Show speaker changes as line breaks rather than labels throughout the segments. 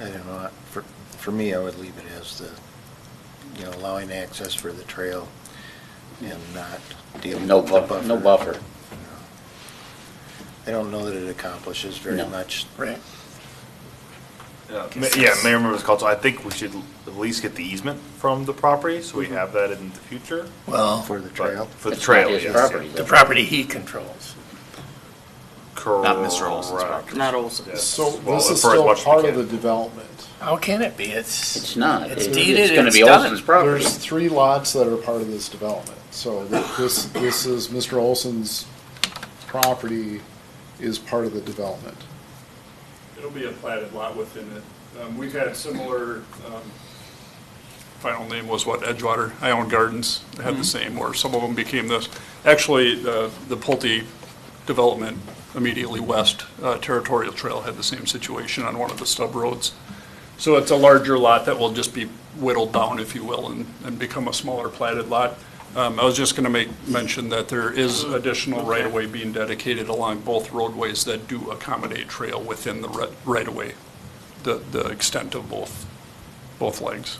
I don't know, I- for, for me, I would leave it as the, you know, allowing access for the trail and not dealing
No
with the
buffer,
buffer.
no buffer.
I don't know that it accomplishes very
No.
much.
Right.
Yeah, ma- yeah, Mayor and Members of Council, I think we should at least get the easement from the property, so we
Mm-hmm.
have that in the future.
Well,
For the
but-
trail.
For the
It's not
trail,
his
yes.
property,
the
though.
property he controls.
Correct.
Mr. Olson's property.
Not Olson.
Yes.
So
Well,
this is
for as
still
much as we
part of
can.
the development.
How can it be? It's.
It's not.
It's
It-
deeded,
It's gonna
it's
be
done.
Olson's property.
There's three lots that are part of this development. So th- this, this is, Mr. Olson's property is part of the development.
It'll be a platted lot within it. Um, We've had similar, um, final name was what, Edgewater, Ion Gardens had the same, or some of them became this. Actually, the the Pulte development immediately west, uh, Territorial Trail had the same situation on one of the stub roads. So it's a larger lot that will just be whittled down, if you will, and and become a smaller platted lot. Um, I was just going to make mention that there is additional right-of-way being dedicated along both roadways that do accommodate trail within the ri- right-of-way, the, the extent of both, both legs.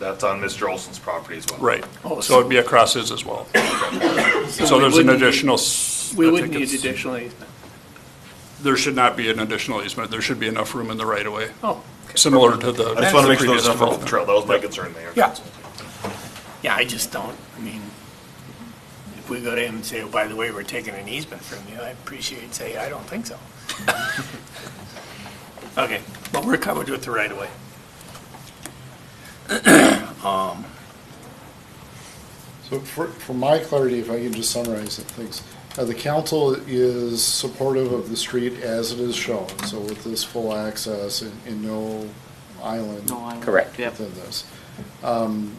That's on Mr. Olson's property as well.
Right.
Oh,
So it'd be across his as well.
we
So there's an
wouldn't need-
additional. s-
We
I
wouldn't
think
need
it's-
additional easement.
There should not be an additional easement. There should be enough room in the right-of-way,
Oh,
similar to the.
I just want to make sure
previous
there's enough room for the
development.
trail. That was my concern there.
Yeah. yeah, I just don't, I mean, if we go to him and say, oh, by the way, we're taking an easement from you, I appreciate it, say, I don't think so. Okay, but we're covered with the right of way.
So for, for my clarity, if I can just summarize the things, uh, the council is supportive of the street as it is shown, so with this full access and, and no island.
No, I-
Correct.
Yep.
within this. Um,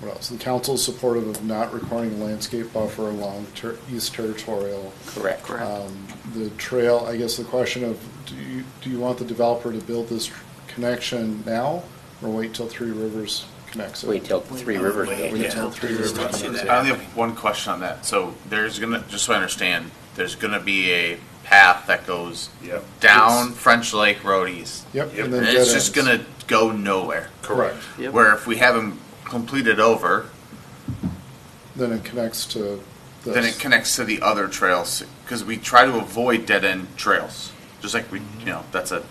What else? The council is supportive of not requiring a landscape buffer along ter- East Territorial.
Correct.
Correct.
Um, The trail, I guess the question of, do you, do you want the developer to build this tr- connection now or wait till Three Rivers connects it?
Wait till Three Rivers. goes
Wait
down.
till Three Rivers connects it.
I only have one question on that. So there's gonna, just so I understand, there's gonna be a path that goes
Yep.
down French Lake Road East.
Yep.
Yep.
and then
And
dead
it's just
ends.
gonna go nowhere.
Correct.
Yep.
Where if we have them completed over,
Then it connects to this.
then it connects to the other trails, because we try to avoid dead-end trails. Just like we, you know, that's a,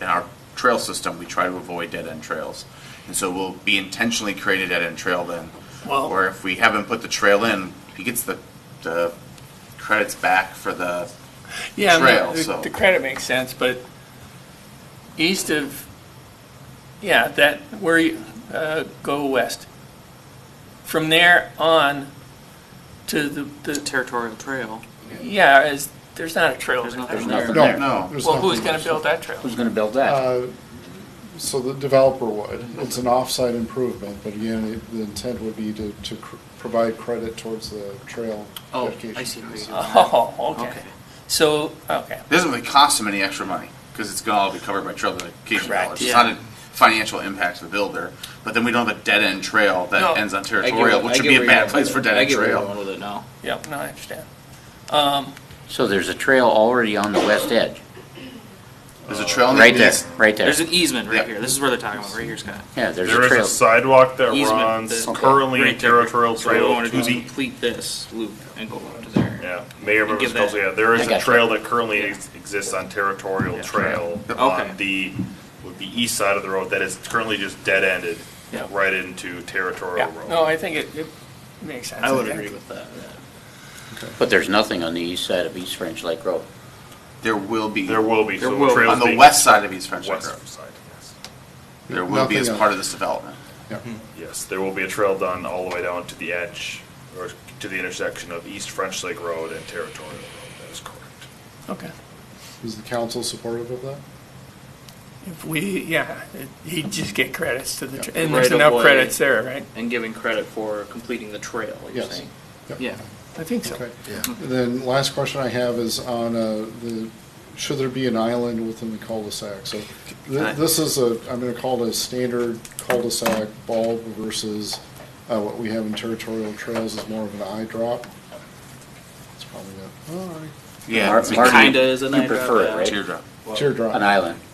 in our trail system, we try to avoid dead-end trails. And so we'll be intentionally creating a dead-end trail then.
Well-
Or if we haven't put the trail in, he gets the, the credits back for the,
Yeah, no,
trail,
the-
so-
The credit makes sense, but east of, yeah, that, where you, uh, go west. From there on to the, the,
Territorial Trail.
yeah, is, there's not a trail.
There's
there.
nothing
nothing
there.
there.
No.
No.
there's
Well, who's
nothing.
gonna build that trail?
Who's gonna build that?
Uh, So the developer would. It's an off-site improvement, but again, it- the intent would be to, to cr- provide credit towards the trail
Oh,
dedication.
I see. what you're doing.
Oh, okay.
Okay.
So, okay,
it doesn't really cost him any extra money, because it's gonna all be covered by trail dedication
Correct,
dollars. It's
yeah.
not a financial impact to the builder, but then we don't have a dead-end trail
No.
that ends on
I get-
territorial,
I
which would
get
be
where
a bad
you're
place
going
for
with it. I
dead-end
get where you're
trail.
going with it now.
yep, no, I understand.
So there's a trail already on the west edge,
There's a trail on the
right there,
east,
right there.
There's an easement right
Yep.
here. This is where they're talking about, right here, Scott.
Yeah, there's
There
a
is a
trail.
sidewalk that
Easement
runs
that-
currently in
Right there.
territorial
So we
trail
want
to
to
the
complete this loop and go up to there.
Yeah, Mayor
And
members
give
council,
that-
yeah, there
I
is a
gotcha.
trail that currently ex- exists on Territorial Trail
Okay.
on the, would be east side of the road that is currently just dead-ended
Yeah.
right into Territorial
Yeah,
Road.
no, I think it, it makes sense.
I would
think.
agree with that.
But there's nothing on the east side of East French Lake Road.
there will be,
There will be,
There
so
will be.
trails
on the
being-
west side of East French Lake Road,
West side, yes.
there will be as
Nothing
part
else.
of this development.
Yes, there will be a trail done all the way down to the edge, or to the intersection of East French Lake Road and Territorial Road, that is correct.
Okay.
Is the council supportive of that?
If we, yeah, it- he'd just get credits to the, tra-
Yeah.
and there's
Right of
enough
way.
credits there, right?
And giving credit for completing the trail, you're
Yes.
saying?
Yep.
Yeah.
I think so.
Okay.
Yeah.
And Then last question I have is on uh, the, should there be an island within the cul-de-sac? So
I-
th- this is a, I'm going to call it a standard cul-de-sac bulb versus uh, what we have in territorial trails is more of an eye drop. It's probably not, all right,
Yeah,
Mar-
it's a
Marty,
kinda is an
you
eye drop,
prefer it,
yeah.
right?
teardrop.
teardrop.
An island.